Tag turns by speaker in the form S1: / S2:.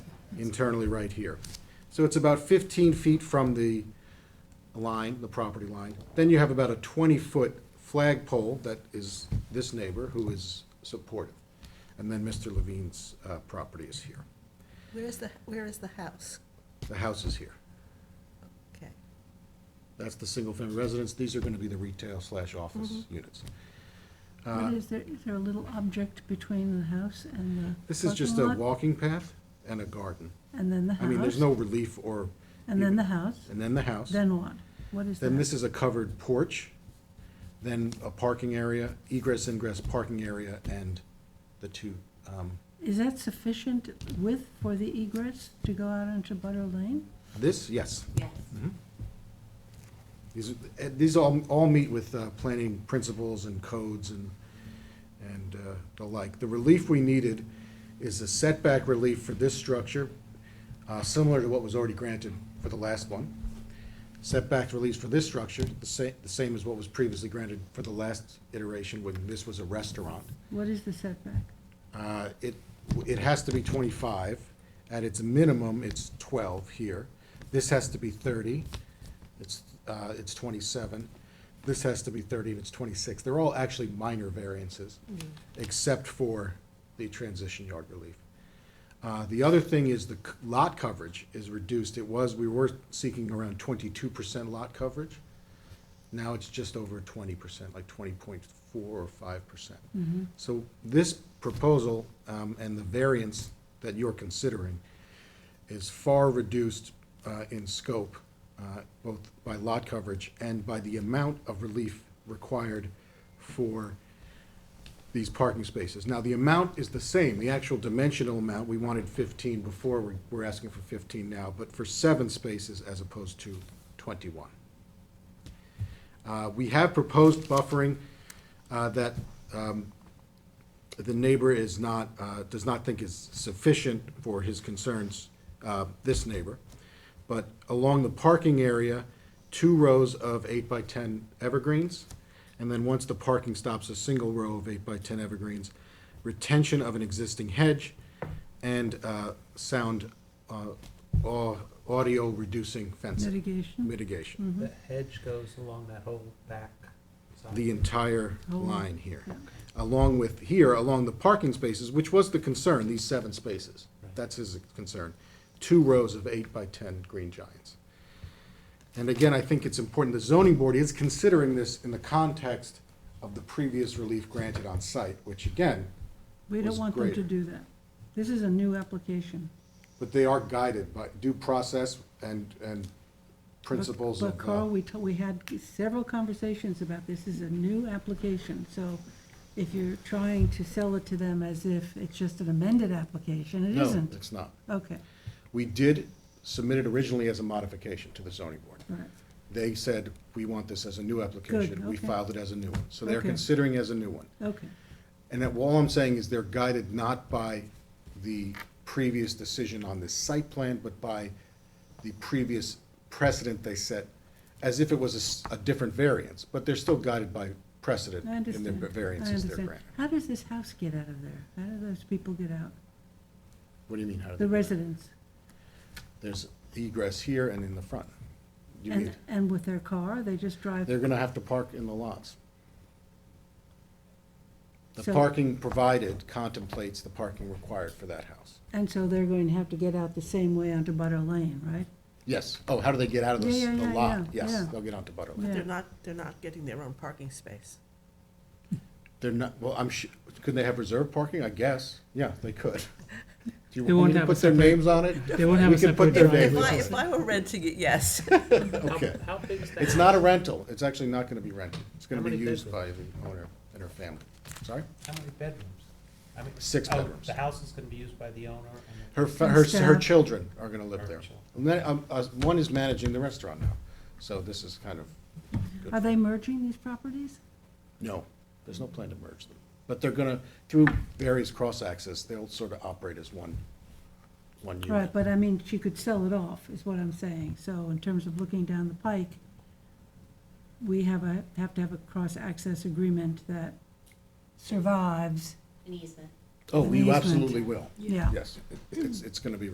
S1: internally right here. So it's about fifteen feet from the line, the property line. Then you have about a twenty-foot flagpole that is this neighbor who is supportive. And then Mr. Levine's, uh, property is here.
S2: Where is the, where is the house?
S1: The house is here.
S2: Okay.
S1: That's the single-family residence. These are gonna be the retail slash office
S3: Mm-hmm.
S1: units. Uh,
S3: What is there, is there a little object between the house and the
S1: This is just a
S3: parking lot?
S1: walking path and a garden.
S3: And then the house?
S1: I mean, there's no relief or.
S3: And then the house?
S1: And then the house.
S3: Then what? What is that?
S1: Then this is a covered porch, then a parking area, egress, ingress, parking area, and the two, um,
S3: Is that sufficient width for the egress to go out onto Butter Lane?
S1: this, yes. Mm-hmm.
S4: Yes.
S1: These, are- uh, these all, all meet with, uh, planning principles and codes and, and, uh, the like. The relief we needed is a setback relief for this structure, uh, similar to what was already granted for the last one. Setback relief for this structure, the same, the same as what was previously granted for the last iteration when this was a restaurant.
S3: What is the setback?
S1: Uh, It, it has to be 25. At its minimum, it's 12 here. This has to be 30. It's, uh, it's 27. This has to be 30, and it's 26. They're all actually minor variances, except for the transition yard relief. Uh, The other thing is the c- lot coverage is reduced. It was, we were seeking around 22% lot coverage. Now it's just over twenty percent, like twenty point four or five percent. So this proposal, um, and the variance that you're considering is far reduced, uh, in scope, uh, both by lot coverage and by the amount of relief required for these parking spaces. Now, the amount is the same, the actual dimensional amount, we wanted fifteen before, we're, we're asking for fifteen now, but for seven spaces as opposed to twenty-one. Uh, We have proposed buffering uh, that um, the neighbor is not, uh, does not think is sufficient for his concerns, uh, this neighbor. But along the parking area, two rows of eight by 10 evergreens, and then once the parking stops, a single row of eight by 10 evergreens, retention of an existing hedge, and uh, sound uh, au- audio-reducing fencing.
S3: Mitigation?
S1: Mitigation.
S5: The hedge goes along that whole back side.
S1: the entire
S3: Oh,
S1: line here.
S3: yeah.
S1: Along with, here, along the parking spaces, which was the concern, these seven spaces.
S5: Right.
S1: That's his concern. Two rows of eight by ten green giants. And again, I think it's important, the zoning board is considering this in the context of the previous relief granted on site, which again,
S3: We don't
S1: was
S3: want them to
S1: greater.
S3: do that. This is a new application.
S1: but they are guided by due process and, and principles
S3: But
S1: of.
S3: Carl,
S1: uh,
S3: we, to- we had several conversations about this is a new application, so if you're trying to sell it to them as if it's just an amended application, it
S1: No,
S3: isn't.
S1: it's not.
S3: Okay,
S1: We did submit it originally as a modification to the zoning board.
S3: all right.
S1: They said, we want this as a new application. We
S3: okay.
S1: filed it as a new one. So they're
S3: Okay.
S1: considering as a new one.
S3: Okay,
S1: And that, all I'm saying is they're guided not by the previous decision on this site plan, but by the previous precedent they set, as if it was a s- a, different variance. But they're still guided by precedent
S3: I
S1: in
S3: understand.
S1: the
S3: I
S1: variances they're
S3: understand.
S1: granted.
S3: How does this house get out of there? How do those people get out?
S1: What do you mean? how do
S3: The
S1: they-
S3: residents?
S1: There's egress here and in the front. You
S3: And,
S1: mean,
S3: and with their car, they just drive?
S1: they're gonna have to park in the lots. The
S3: So-
S1: parking provided contemplates the parking required for that house.
S3: And so they're going to have to get out the same way onto Butter Lane, right?
S1: Yes. Oh, how do they get out of this,
S3: Yeah, yeah,
S1: the
S3: yeah,
S1: lot?
S3: yeah,
S1: Yes,
S3: yeah.
S1: they'll get onto Butter Lane.
S2: But
S3: Yeah.
S2: they're not, they're not getting their own parking space.
S1: They're not, well, I'm su, could they have reserved parking? I guess. Yeah, they could. Do you
S6: They
S1: want me
S6: won't
S1: to
S6: have a
S1: put their
S6: separate-
S1: names on it?
S6: They won't have
S1: We
S6: a
S1: can
S6: separate
S1: put their
S2: If
S1: neighbors
S2: I,
S6: driveway.
S2: if I were renting it, yes.
S5: How-
S1: Okay.
S5: How big is that?
S1: It's not a rental. It's actually not gonna be rented. It's gonna
S5: How
S1: be
S5: many
S1: used by the owner and her family. Sorry?
S5: How many bedrooms? I mean-
S1: Six
S5: oh,
S1: bedrooms.
S5: The house is gonna be used by the owner and.
S1: Her, fa-
S3: And
S1: her, her
S3: staff.
S1: children are gonna live
S5: Her
S1: there.
S5: children.
S1: And then, um, uh, one is managing the restaurant now, so this is kind of,
S3: Are they merging these properties?
S1: no, there's no plan to merge them. But they're gonna, through various cross-access, they'll sort of operate as one, one unit.
S3: Right, but I mean, she could sell it off, is what I'm saying. So in terms of looking down the pike, we have a, have to have a cross-access agreement that survives,
S4: An easement.
S1: Oh,
S3: An
S1: you Oh,
S3: easement.
S1: absolutely will.
S3: yeah.
S1: Yes, It- it's, it's gonna be